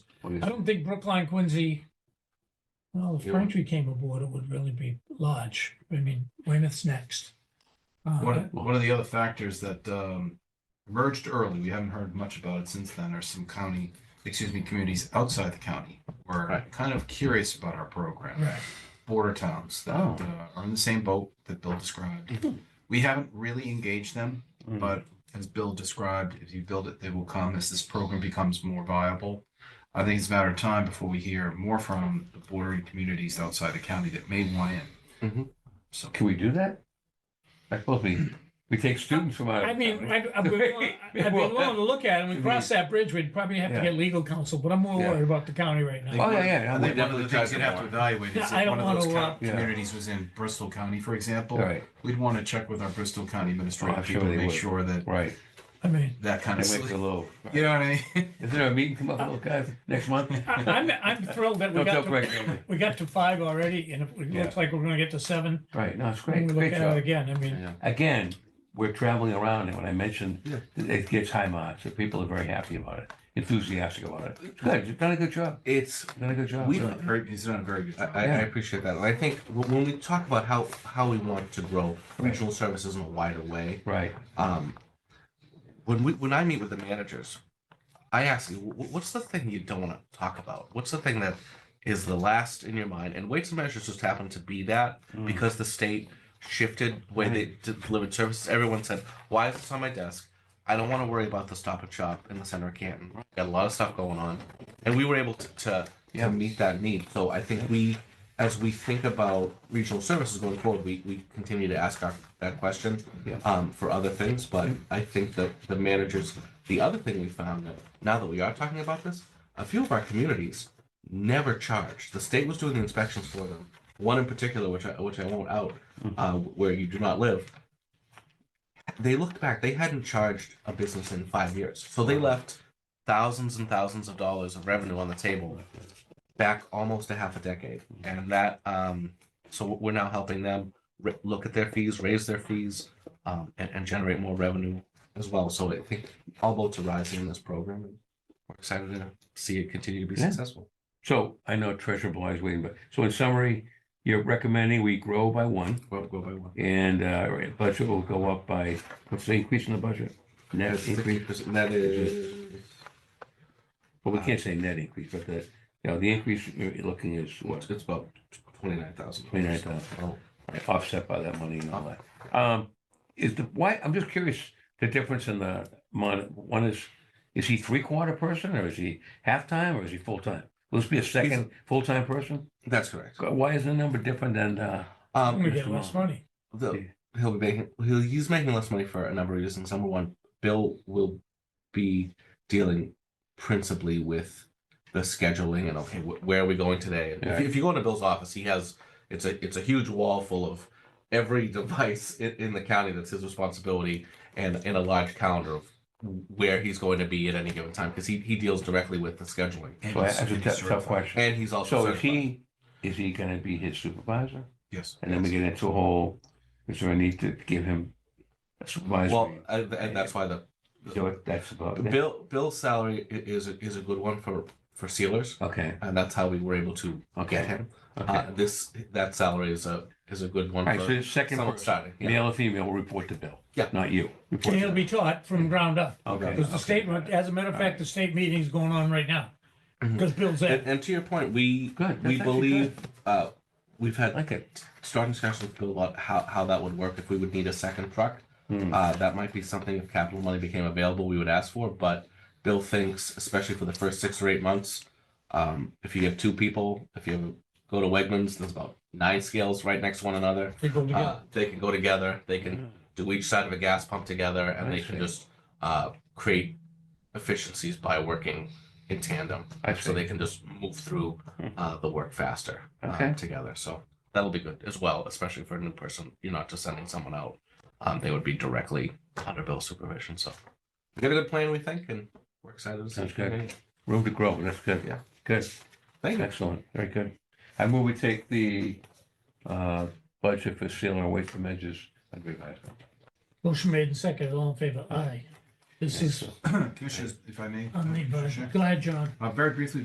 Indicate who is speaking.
Speaker 1: What is-
Speaker 2: I don't think Brookline Quincy. Well, if
Speaker 1: Yeah.
Speaker 2: Braintree came aboard, it would really be large. I mean, Weymouth's next. Uh,
Speaker 3: One, one of the other factors that um, emerged early, we haven't heard much about it since then, are some county, excuse me, communities outside the county who are
Speaker 1: Right.
Speaker 3: kind of curious about our program,
Speaker 2: Right,
Speaker 3: border towns that
Speaker 1: Oh.
Speaker 3: uh, are in the same boat that Bill described.
Speaker 1: Mhm.
Speaker 3: We haven't really engaged them,
Speaker 1: Mm.
Speaker 3: but as Bill described, if you build it, they will come as this program becomes more viable. I think it's a matter of time before we hear more from the bordering communities outside the county that may want in.
Speaker 1: Mhm.
Speaker 3: So.
Speaker 1: Can we do that? I suppose we, we take students from out. of
Speaker 2: I mean,
Speaker 1: town.
Speaker 2: I'd, I'd be willing, I'd be willing to look at it. When We cross that bridge, we'd probably have to
Speaker 1: Yeah.
Speaker 2: get legal counsel, but I'm more
Speaker 1: Yeah.
Speaker 2: worried about the county right now.
Speaker 1: Oh, yeah, yeah.
Speaker 3: I
Speaker 1: we
Speaker 3: think one of
Speaker 1: definitely
Speaker 3: the things
Speaker 1: take
Speaker 3: you'd have to
Speaker 1: them
Speaker 3: evaluate
Speaker 2: Yeah,
Speaker 3: is
Speaker 2: I
Speaker 3: if one
Speaker 2: don't
Speaker 3: of those
Speaker 2: wanna, uh,
Speaker 3: coun-
Speaker 1: Yeah.
Speaker 3: communities was in Bristol County, for
Speaker 1: on.
Speaker 3: example.
Speaker 1: Right,
Speaker 3: We'd want to check with our Bristol County
Speaker 1: Oh,
Speaker 3: administrative
Speaker 1: I'm sure
Speaker 3: people to
Speaker 1: they
Speaker 3: make
Speaker 1: would.
Speaker 3: sure that
Speaker 1: right.
Speaker 2: I mean,
Speaker 3: that kind
Speaker 1: That
Speaker 3: of,
Speaker 1: makes it a
Speaker 3: sli-
Speaker 1: little.
Speaker 3: you know what I mean?
Speaker 1: Is there a meeting come up, little guys, next month?
Speaker 2: I, I'm, I'm thrilled that Uh, we
Speaker 1: Don't
Speaker 2: got
Speaker 1: tell Greg.
Speaker 2: to, we got to five already and it
Speaker 1: Yeah.
Speaker 2: looks like we're gonna get to seven.
Speaker 1: Right, no, it's
Speaker 2: When
Speaker 1: great,
Speaker 2: we
Speaker 1: great
Speaker 2: look at it
Speaker 1: job.
Speaker 2: again, I mean,
Speaker 4: Yeah.
Speaker 1: Again, we're traveling around and when I mentioned,
Speaker 4: Yeah.
Speaker 1: that it gets high marks, so people are very happy about it, enthusiastic about it. It's Good, you've done a good job,
Speaker 4: It's,
Speaker 1: you've done a good job.
Speaker 4: We-
Speaker 1: Good.
Speaker 3: Very- He's done a very good
Speaker 4: I,
Speaker 3: job.
Speaker 4: I
Speaker 1: Yeah.
Speaker 4: I appreciate that. And I think wh- when we talk about how, how we want to grow regional services in a wider way,
Speaker 1: Right,
Speaker 4: um, when we, when I meet with the managers, I ask you, "Wh- wh- what's the thing you don't want to talk about? What's the thing that is the last in your mind? And weights and measures just happen to be that
Speaker 1: Mm.
Speaker 4: because the state shifted the way they d- delivered services. Everyone said, why is this on my desk? I don't want to worry about the stop and shop in the center of Canton. Got a lot of stuff going on. And we were able to, to,
Speaker 1: Yeah.
Speaker 4: to meet that need. So I think we, as we think about regional services going forward, we, we continue to ask our, that question
Speaker 1: Yeah.
Speaker 4: um, for other things. But I think that the managers, the other thing we found that now that we are talking about this, a few of our communities never charged. The state was doing the inspections for them. One in particular, which I which I won't out, uh, where you do not live. They looked back. They hadn't charged a business in five years, so they left thousands and thousands of dollars of revenue on the table back almost a half a decade, and that um, so we're now helping them r- look at their fees, raise their fees, um, and, and generate more revenue as well. So I think all boats are rising in this program, and we're excited to see it continue to be
Speaker 1: Yeah.
Speaker 4: successful.
Speaker 1: so I know Treasurer Bly is waiting, but, so in summary, you're recommending we grow by one.
Speaker 4: Go, go by one.
Speaker 1: And uh, budget will go up by, what's the increase in the budget? Net
Speaker 4: That's
Speaker 1: increase,
Speaker 4: 50%. That is.
Speaker 1: well, we can't say net increase, but the, you know, the increase you're looking is what,
Speaker 4: It's about twenty-nine thousand. Oh,
Speaker 1: $29,000. offset by that money and all that. Um, Is the, why, I'm just curious, the difference in the mon, one is, is he three-quarter person or is he half-time or is he full-time? Will this be a second full-time person?
Speaker 4: That's correct.
Speaker 1: Why is the number different than, uh,
Speaker 2: I'm
Speaker 4: Um,
Speaker 2: gonna get less money.
Speaker 4: the, he'll be making, he'll, he's making less money for a number of reasons. Number one, Bill will be dealing principally with the scheduling and okay, wh- where are we going today? And if,
Speaker 1: Yeah.
Speaker 4: if you go into Bill's office, he has it's a it's a huge wall full of every device in, in the county that's his responsibility and and a large calendar of where he's going to be at any given time because he, he deals directly with the scheduling
Speaker 3: And
Speaker 1: so that's
Speaker 3: he's-
Speaker 1: a
Speaker 3: and
Speaker 1: tough-
Speaker 3: he's
Speaker 1: tough
Speaker 3: certified.
Speaker 1: question.
Speaker 4: and he's also
Speaker 1: So is
Speaker 4: certified.
Speaker 1: he, is he gonna be his supervisor?
Speaker 3: Yes.
Speaker 1: And then we get into a whole, is there a need to give him a
Speaker 4: well
Speaker 1: supervisory?
Speaker 4: I- and that's why the
Speaker 1: So it- that's about it.
Speaker 4: Bill Bill's salary i- is a- is a good one for for sealers,
Speaker 1: Okay,
Speaker 4: and that's how we were able to
Speaker 1: okay,
Speaker 4: get him.
Speaker 1: okay.
Speaker 4: Uh, this that salary is a is a good one
Speaker 1: All right, so
Speaker 4: for
Speaker 1: the second
Speaker 4: someone
Speaker 1: person,
Speaker 4: starting. Yeah.
Speaker 1: male or female, will report to Bill.
Speaker 4: Yeah.
Speaker 1: Not you. Report
Speaker 2: And
Speaker 1: to
Speaker 2: it'll be taught from ground up.
Speaker 1: Bill. Okay.
Speaker 2: Because the
Speaker 1: okay.
Speaker 2: state, as a matter of fact, the state meeting's going on right now.
Speaker 4: Mhm.
Speaker 2: Because Bill's
Speaker 4: And,
Speaker 2: there.
Speaker 4: and to your point, we
Speaker 1: Good,
Speaker 4: we
Speaker 1: that's actually
Speaker 4: believe uh, we've
Speaker 1: I
Speaker 4: had
Speaker 1: Like it.
Speaker 4: strong discussions with Bill about how, how that would work if we would need a second truck.
Speaker 1: Hmm.
Speaker 4: Uh, that might be something if capital money became available, we would ask for. But Bill thinks, especially for the first six or eight months, um, if you have two people, if you go to Wegmans, there's about nine scales right next to one another.
Speaker 2: They go together.
Speaker 4: Uh, they can go together. They can do each side of a gas pump together, and
Speaker 1: I
Speaker 4: they can
Speaker 1: see.
Speaker 4: just uh, create efficiencies by working in tandem.
Speaker 1: I
Speaker 4: So
Speaker 1: see.
Speaker 4: they can just move through
Speaker 1: Mhm.
Speaker 4: uh, the work faster uh,
Speaker 1: Okay.
Speaker 4: together. So that'll be good as well, especially for a new person. You're not just sending someone out. Um, they would be directly under Bill's supervision. So we got a good plan, we think, and we're excited. to see
Speaker 1: Sounds
Speaker 4: it continue.
Speaker 1: Room to grow, that's good.
Speaker 4: Yeah.
Speaker 1: Good,
Speaker 4: Thank you.
Speaker 1: excellent, very good. I move we take the uh, budget for sealing away from edges. and revise.
Speaker 2: Motion made and seconded, all in favor, aye. This is
Speaker 3: Commissioners, if I may. uh,
Speaker 2: on the
Speaker 3: Commissioner?
Speaker 2: version. Go ahead, John.
Speaker 3: Uh, very briefly,